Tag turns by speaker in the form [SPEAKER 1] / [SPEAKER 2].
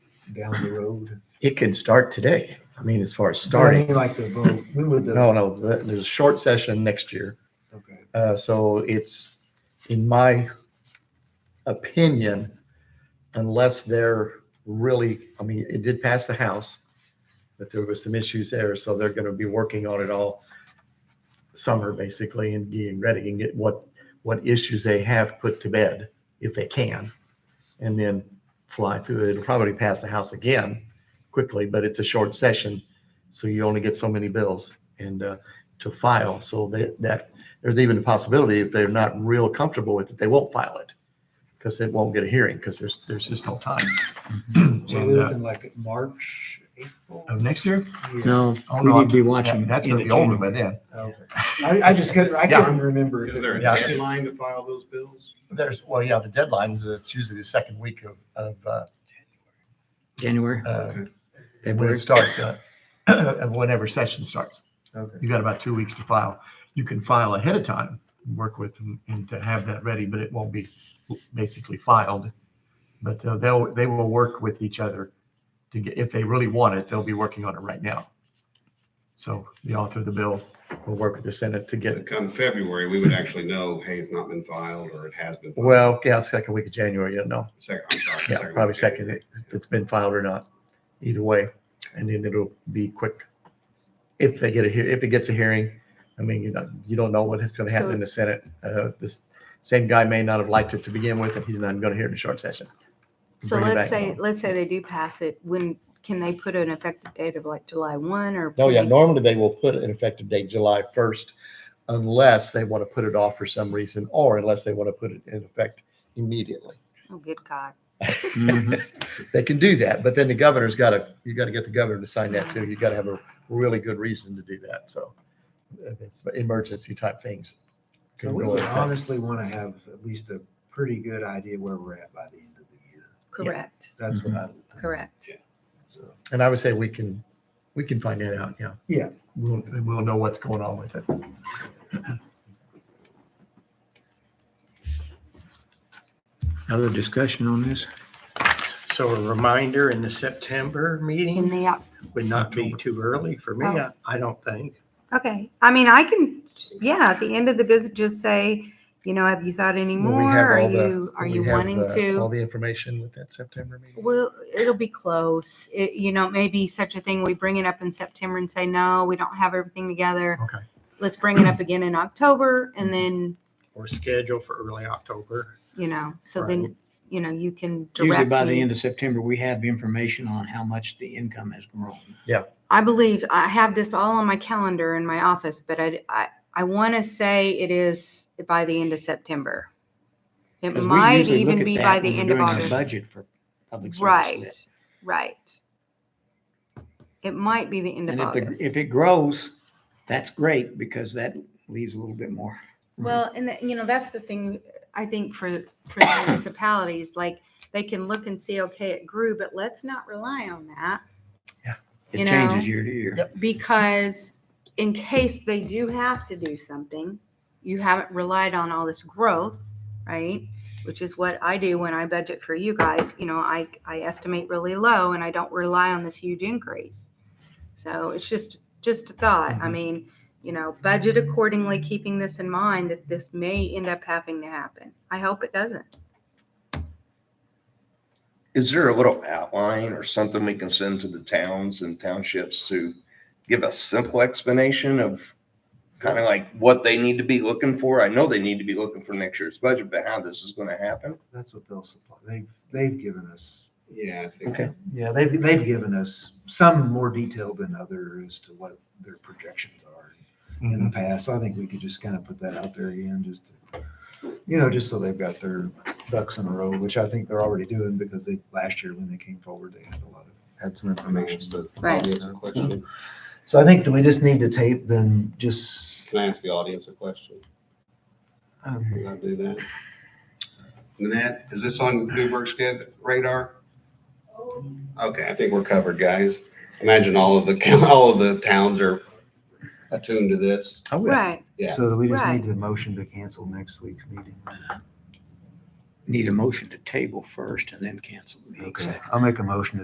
[SPEAKER 1] down the road?
[SPEAKER 2] It can start today. I mean, as far as
[SPEAKER 1] I
[SPEAKER 2] starting,
[SPEAKER 1] mean, Like the vote, when would the,
[SPEAKER 2] no, no, th- there's a short session next year.
[SPEAKER 1] okay,
[SPEAKER 2] Uh, so it's, in my opinion, unless they're really, I mean, it did pass the House, but there was some issues there, so they're gonna be working on it all summer, basically, and getting ready and get what, what issues they have put to bed, if they can, and then fly through it. It'll probably pass the House again quickly, but it's a short session, so you only get so many bills and, uh, to file, so that, that there's even a possibility if they're not real comfortable with it, they won't file it because it won't get a hearing because there's, there's just no time.
[SPEAKER 1] so
[SPEAKER 2] And,
[SPEAKER 1] we're
[SPEAKER 2] uh,
[SPEAKER 1] looking like at March, April?
[SPEAKER 2] Of uh, next year?
[SPEAKER 1] Yeah,
[SPEAKER 3] No,
[SPEAKER 2] Oh,
[SPEAKER 3] we
[SPEAKER 2] no,
[SPEAKER 3] need to be watching.
[SPEAKER 2] That's going to be
[SPEAKER 3] entertainment.
[SPEAKER 2] older by then.
[SPEAKER 1] okay. I, I just couldn't, I
[SPEAKER 2] Yeah.
[SPEAKER 1] couldn't remember. if
[SPEAKER 4] Is
[SPEAKER 1] it
[SPEAKER 4] there a
[SPEAKER 1] was-
[SPEAKER 2] Yeah.
[SPEAKER 4] deadline to file those bills?
[SPEAKER 2] There's, well, yeah, the deadlines, it's usually the second week of, of, uh,
[SPEAKER 3] January,
[SPEAKER 2] uh, when
[SPEAKER 3] February.
[SPEAKER 2] it starts, uh, of whenever session starts.
[SPEAKER 1] Okay.
[SPEAKER 2] You got about two weeks to file. You can file ahead of time, work with them and to have that ready, but it won't be basically filed. But uh, they'll, they will work with each other to get, if they really want it, they'll be working on it right now. So the author of the bill will work with the Senate to get
[SPEAKER 4] But Come February, we would actually know, hey, it's not been filed or it has been. filed.
[SPEAKER 2] Well, yeah, second week of January, yeah, no,
[SPEAKER 4] Second, I'm sorry.
[SPEAKER 2] yeah,
[SPEAKER 4] week
[SPEAKER 2] probably
[SPEAKER 4] of
[SPEAKER 2] second,
[SPEAKER 4] January.
[SPEAKER 2] if it's been filed or not, either way, and then it'll be quick. If they get a, hea- if it gets a hearing, I mean, you know, you don't know what is gonna happen in the Senate. Uh, this same guy may not have liked it to begin with, and he's not gonna hear it in short session.
[SPEAKER 5] So
[SPEAKER 2] Bring it back
[SPEAKER 5] let's say,
[SPEAKER 2] down.
[SPEAKER 5] let's say they do pass it, when, can they put an effective date of like July one or?
[SPEAKER 2] No,
[SPEAKER 5] can
[SPEAKER 2] Oh, yeah,
[SPEAKER 5] they-
[SPEAKER 2] normally they will put an effective date July first unless they wanna put it off for some reason, or unless they wanna put it in effect immediately.
[SPEAKER 5] Oh, good God.
[SPEAKER 3] Mhm.
[SPEAKER 2] they can do that, but then the governor's got to, you got to get the governor to sign that too. You got to have a really good reason to do that. So uh, it's emergency type things.
[SPEAKER 1] So
[SPEAKER 2] can
[SPEAKER 1] we
[SPEAKER 2] go
[SPEAKER 1] would
[SPEAKER 2] in effect.
[SPEAKER 1] honestly want to have at least a pretty good idea where we're at by the end of the year.
[SPEAKER 5] Correct,
[SPEAKER 1] That's
[SPEAKER 2] Mm-hmm.
[SPEAKER 1] what I. would think.
[SPEAKER 5] correct.
[SPEAKER 1] So,
[SPEAKER 2] And I would say we can, we can find that out, yeah.
[SPEAKER 1] Yeah.
[SPEAKER 2] We'll, we'll know what's going on with it.
[SPEAKER 3] Other discussion on this?
[SPEAKER 6] So a reminder in the September
[SPEAKER 5] In
[SPEAKER 6] meeting
[SPEAKER 5] the, op-
[SPEAKER 6] would not be too early for me, I I don't think.
[SPEAKER 5] okay, I mean, I can, yeah, at the end of the visit, just say, you know, have you thought any
[SPEAKER 2] Will
[SPEAKER 5] more?
[SPEAKER 2] we have
[SPEAKER 5] Are
[SPEAKER 2] all the-
[SPEAKER 5] you, are
[SPEAKER 2] will we
[SPEAKER 5] you
[SPEAKER 2] have,
[SPEAKER 5] wanting
[SPEAKER 2] uh, All
[SPEAKER 5] to?
[SPEAKER 2] the information with that September meeting?
[SPEAKER 5] Well, it'll be close. It, you know, maybe such a thing, we bring it up in September and say, no, we don't have everything together.
[SPEAKER 2] Okay.
[SPEAKER 5] Let's bring it up again in October and then,
[SPEAKER 6] Or scheduled for early October.
[SPEAKER 5] you know, so then,
[SPEAKER 6] Right.
[SPEAKER 5] you know, you can
[SPEAKER 3] Usually
[SPEAKER 5] direct
[SPEAKER 3] by the
[SPEAKER 5] me.
[SPEAKER 3] end of September, we have information on how much the income has grown.
[SPEAKER 5] I believe I have this all on my calendar in my office, but I, I, I want to say it is by the end of September. It
[SPEAKER 3] 'Cause we
[SPEAKER 5] might
[SPEAKER 3] usually look
[SPEAKER 5] even
[SPEAKER 3] at
[SPEAKER 5] be
[SPEAKER 3] that
[SPEAKER 5] by
[SPEAKER 3] when
[SPEAKER 5] the
[SPEAKER 3] we're
[SPEAKER 5] end of
[SPEAKER 3] doing our
[SPEAKER 5] August.
[SPEAKER 3] Budget for public
[SPEAKER 5] Right,
[SPEAKER 3] service.
[SPEAKER 5] right. It might be the end
[SPEAKER 3] And
[SPEAKER 5] of
[SPEAKER 3] if, the-
[SPEAKER 5] August.
[SPEAKER 3] if it grows, that's great because that leaves a little bit more.
[SPEAKER 5] Well, and that, you know, that's the thing, I think for, for the municipalities, like, they can look and see, okay, it grew, but let's not rely on that. You
[SPEAKER 3] It
[SPEAKER 5] know?
[SPEAKER 3] changes year to year.
[SPEAKER 2] Yep.
[SPEAKER 5] because in case they do have to do something, you haven't relied on all this growth, right? Which is what I do when I budget for you guys. You know, I, I estimate really low and I don't rely on this huge increase. So it's just, just a thought. I
[SPEAKER 2] Mhm.
[SPEAKER 5] mean, you know, budget accordingly, keeping this in mind that this may end up having to happen. I hope it doesn't.
[SPEAKER 7] Is there a little outline or something we can send to the towns and townships to give a simple explanation of kind of like what they need to be looking for? I know they need to be looking for next year's budget, but how this is going to happen?
[SPEAKER 1] That's what they'll supply. They've, they've given us,
[SPEAKER 4] Yeah, I think.
[SPEAKER 7] Okay.
[SPEAKER 1] yeah, they've, they've given us some more detail than others as to what their projections are in the past. So I think we could just kind of put that out there again, just to, you know, just so they've got their ducks in a row, which I think they're already doing because they, last year when they came forward, they had a lot of, had some information.
[SPEAKER 5] Right.
[SPEAKER 1] So I think, do we just need to tape then just? um,
[SPEAKER 4] Can I ask the audience a question? Can I do that? Nanette, is this on Newburgh's kid radar? Okay, I think we're covered, guys. Imagine all of the, all of the towns are attuned to this.
[SPEAKER 2] I would,
[SPEAKER 5] Right.
[SPEAKER 4] Yeah.
[SPEAKER 1] So we just
[SPEAKER 5] Right.
[SPEAKER 1] need the motion to cancel next week's meeting.
[SPEAKER 3] Need a motion to table first and then cancel the meeting
[SPEAKER 1] Okay,
[SPEAKER 3] second.
[SPEAKER 1] I'll make a motion to